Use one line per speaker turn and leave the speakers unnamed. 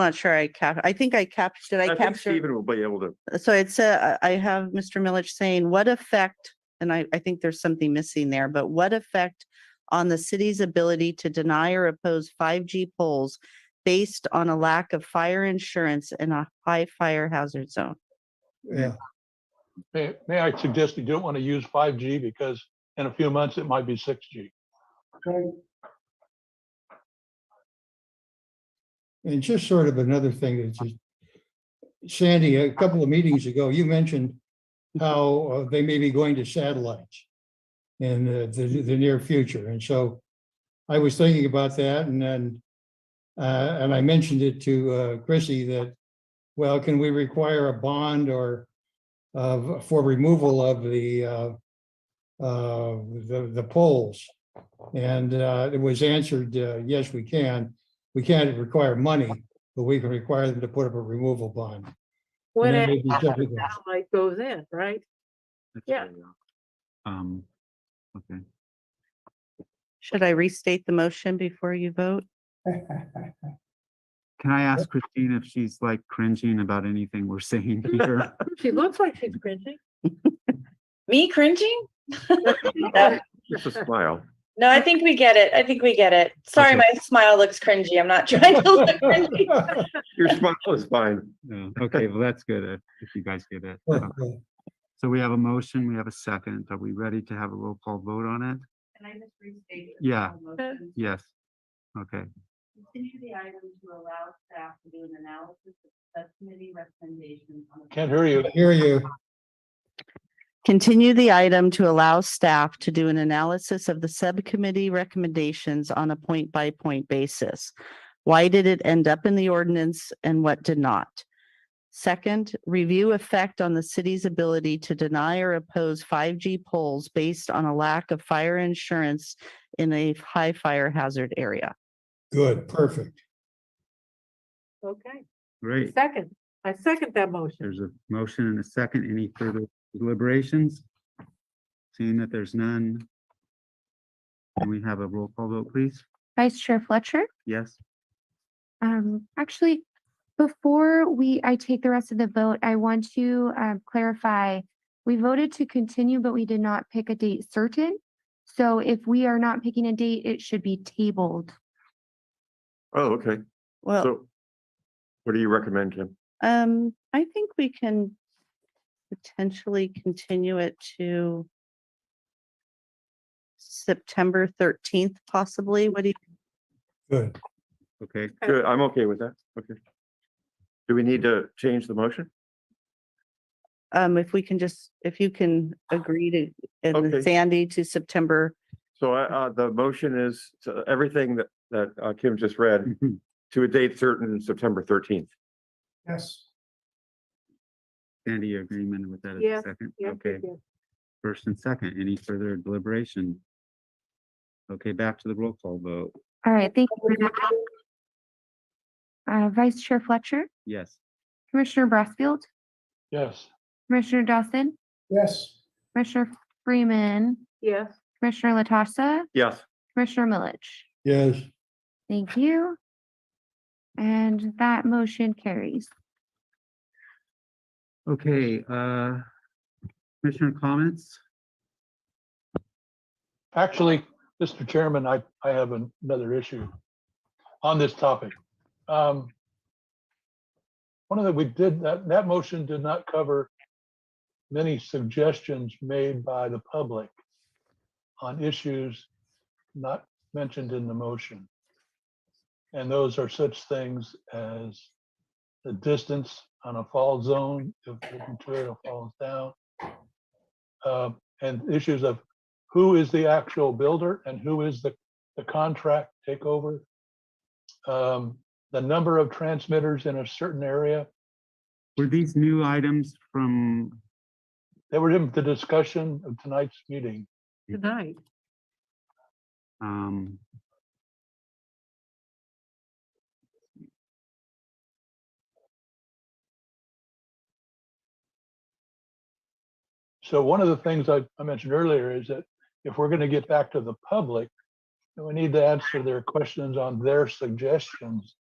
Not sure I cap, I think I captured, did I
I think
capture?
Stephen will be able to,
So it's a, I I have Mr. Milich saying, what effect, and I, I think there's something missing there, but what effect on the city's ability to deny or oppose 5G poles based on a lack of fire insurance in a high fire hazard zone?
Yeah,
May, may I suggest you don't want to use five G because in a few months it might be six G.
and just sort of another thing that's just, Sandy, a couple of meetings ago, you mentioned how uh, they may be going to satellites in uh, the, the near future. And so I was thinking about that and then, uh, and I mentioned it to uh, Chrissy that, well, can we require a bond or of, for removal of the, uh, uh, the, the poles? And uh, it was answered, uh, yes, we can. We can't require money, but we can require them to put up a removal bond.
When
then
it
maybe something else.
satellite goes in, right? Yeah.
Um, okay.
Should I restate the motion before you vote?
Can I ask Christine if she's like cringing about anything we're saying here?
She looks like she's cringing.
Me cringing?
Just a smile.
No, I think we get it. I think we get it. Sorry,
Okay.
my smile looks cringy. I'm not trying to look cringy.
Your smile is fine.
No. Okay, well, that's good if if you guys get it. Uh, So we have a motion, we have a second. Are we ready to have a roll call vote on it?
Can I just restate?
the Yeah. Yes. Okay,
Continue the item to allow staff to do an analysis of subcommittee recommendations on
Can't hear you.
Hear you.
Continue the item to allow staff to do an analysis of the subcommittee recommendations on a point-by-point basis. Why did it end up in the ordinance and what did not? Second, review effect on the city's ability to deny or oppose 5G poles based on a lack of fire insurance in a high fire hazard area.
Good, perfect.
Okay,
great.
second, I second that motion.
There's a motion and a second. Any further deliberations? Seeing that there's none. Can we have a roll call vote, please?
Vice Chair Fletcher.
Yes?
Um, actually, before we, I take the rest of the vote, I want to um, clarify. We voted to continue, but we did not pick a date certain. So if we are not picking a date, it should be tabled.
Oh, okay.
Well,
So what do you recommend, Kim?
um, I think we can potentially continue it to September thirteenth possibly. What do you,
Good.
Okay,
Uh,
Good, I'm okay with that. Okay. Do we need to change the motion?
um, if we can just, if you can agree to, and
Okay.
then Sandy to September,
So
Mm.
I, uh, the motion is to everything that, that uh, Kim just read to a date certain, September thirteenth.
Yes.
Sandy, your agreement with that as
Yeah,
a second?
Yeah,
Okay.
yeah.
First and second, any further deliberation? Okay, back to the roll call vote.
All right, thank you. for that. Uh, Vice Chair Fletcher,
Yes.
Commissioner Brassfield,
Yes.
Commissioner Dawson,
Yes.
Commissioner Freeman,
Yes,
Commissioner Latassa,
Yes,
Commissioner Milich.
Yes,
Thank you. And that motion carries.
Okay, uh, Commissioner comments?
Actually, Mr. Chairman, I, I have an- another issue on this topic. Um, One of the, we did, that, that motion did not cover many suggestions made by the public on issues not mentioned in the motion. And those are such things as the distance on a fall zone, if the material falls down. uh, And issues of who is the actual builder and who is the, the contract takeover. Um, the number of transmitters in a certain area,
Were these new items from,
they were in the discussion of tonight's meeting.
tonight.
um,
So one of the things I, I mentioned earlier is that if we're gonna get back to the public, then we need to answer their questions on their suggestions